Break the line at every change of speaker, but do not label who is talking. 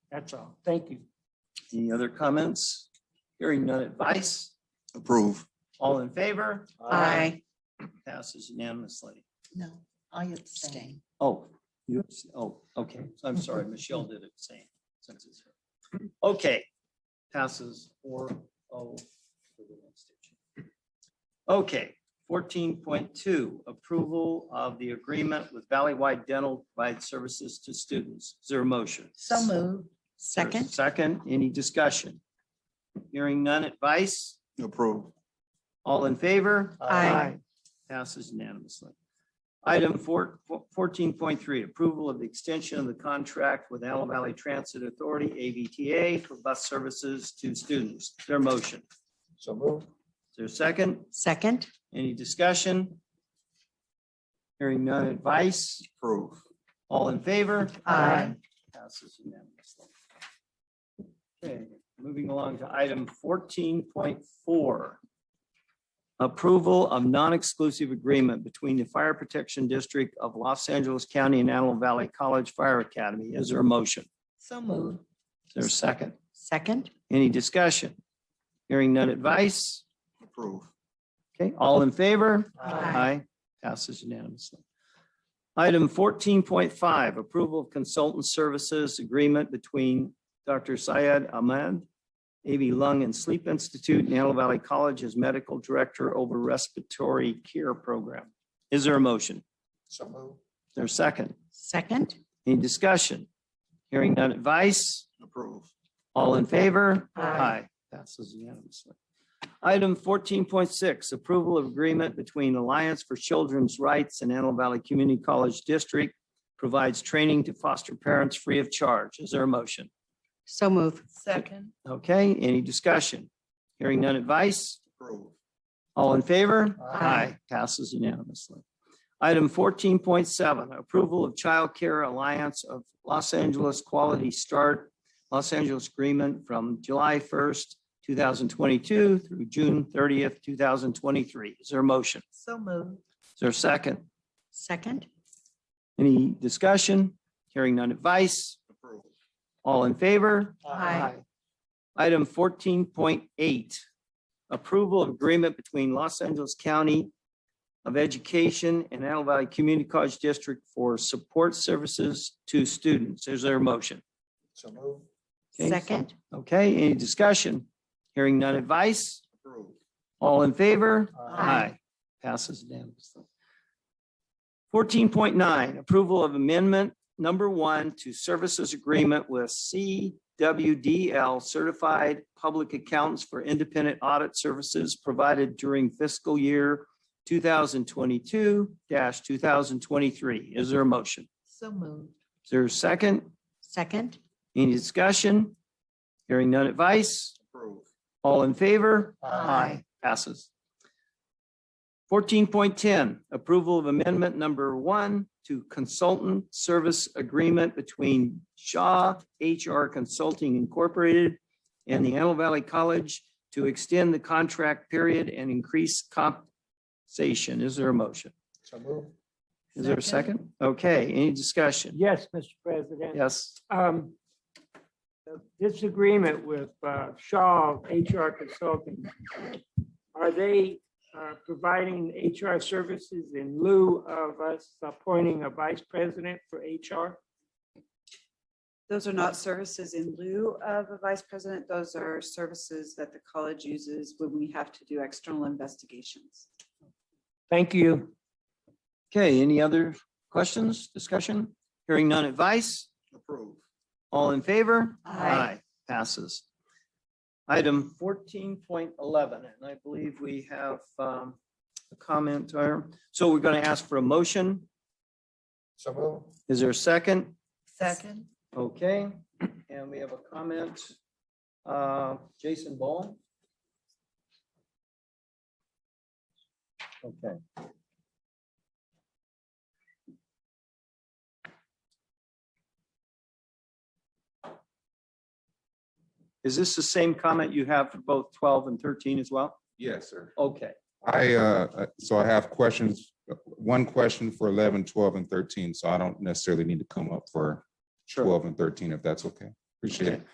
That's all. Thank you.
Any other comments? Hearing none advice?
Approve.
All in favor?
I
Passes unanimously.
No, I abstain.
Oh, you, oh, okay. I'm sorry, Michelle did it same. since it's her. Okay, passes four oh. for the one station. Okay, fourteen point two, approval of the agreement with Valleywide Dental to provide services to students. Is there a motion?
So moved.
There's a
Second?
Second, any discussion? Hearing none advice?
Approve.
All in favor?
Aye.
Passes unanimously. Item four, fourteen point three, approval of the extension of the contract with Antelope Valley Transit Authority, AVTA, for bus services to students. Is There a motion?
So move.
Is there a second?
Second?
Any discussion? Hearing none advice?
Approve.
All in favor?
Aye.
Passes unanimously. Okay, moving along to item fourteen point four. Approval of non-exclusive agreement between the Fire Protection District of Los Angeles County and Antelope Valley College Fire Academy. Is there a motion?
So moved.
Is there a second?
Second?
Any discussion? Hearing none advice?
Approve.
Okay, all in favor?
Aye.
Aye, passes unanimously. Item fourteen point five, approval of consultant services agreement between Dr. Syed Ahmed, AV Lung and Sleep Institute, and Antelope Valley College as medical director over respiratory care program. Is there a motion? Is
So move.
there a second?
Second?
Any discussion? Hearing none advice?
Approve.
All in favor?
Aye.
Passes unanimously. Item fourteen point six, approval of agreement between Alliance for Children's Rights and Antelope Valley Community College District provides training to foster parents free of charge. Is there a motion?
So moved.
Second.
Okay, any discussion? Hearing none advice?
Approve.
All in favor?
Aye.
Passes unanimously. Item fourteen point seven, approval of Child Care Alliance of Los Angeles Quality Start, Los Angeles Agreement from July first, two thousand twenty-two through June thirtieth, two thousand twenty-three. Is there a motion?
So moved.
Is there a second?
Second?
Any discussion? Hearing none advice?
Approve.
All in favor?
Aye.
Item fourteen point eight, approval of agreement between Los Angeles County of Education and Antelope Valley Community College District for support services to students. Is there a motion?
So move.
Okay.
Second?
Okay, any discussion? Hearing none advice?
Approve.
All in favor?
Aye.
Passes unanimously. Fourteen point nine, approval of amendment number one to services agreement with CWDL Certified Public Accountants for Independent Audit Services provided during fiscal year two thousand twenty-two two thousand twenty-three. Is there a motion?
So moved.
Is there a second?
Second?
Any discussion? Hearing none advice?
Approve.
All in favor?
Aye.
Passes. Fourteen point ten, approval of amendment number one to consultant service agreement between Shaw HR Consulting Incorporated and the Antelope Valley College to extend the contract period and increase compensation. Is there a motion?
So move.
Is there a second? Okay, any discussion?
Yes, Mr. President.
Yes.
Um, this agreement with uh, Shaw HR Consulting, are they uh, providing HR services in lieu of us appointing a vice president for HR?
Those are not services in lieu of a vice president. Those are services that the college uses when we have to do external investigations.
Thank you.
Okay, any other questions, discussion? Hearing none advice?
Approve.
All in favor?
Aye.
Passes. Item fourteen point eleven, and I believe we have um, a comment or, so we're going to ask for a motion.
So move.
Is there a second?
Second.
Okay, and we have a comment. Uh, Jason Ball? Okay. Is this the same comment you have for both twelve and thirteen as well?
Yes, sir.
Okay,
I, uh, uh, so I have questions, uh, one question for 11, 12, and thirteen, so I don't necessarily need to come up for
sure.
twelve and thirteen, if that's okay. Appreciate it.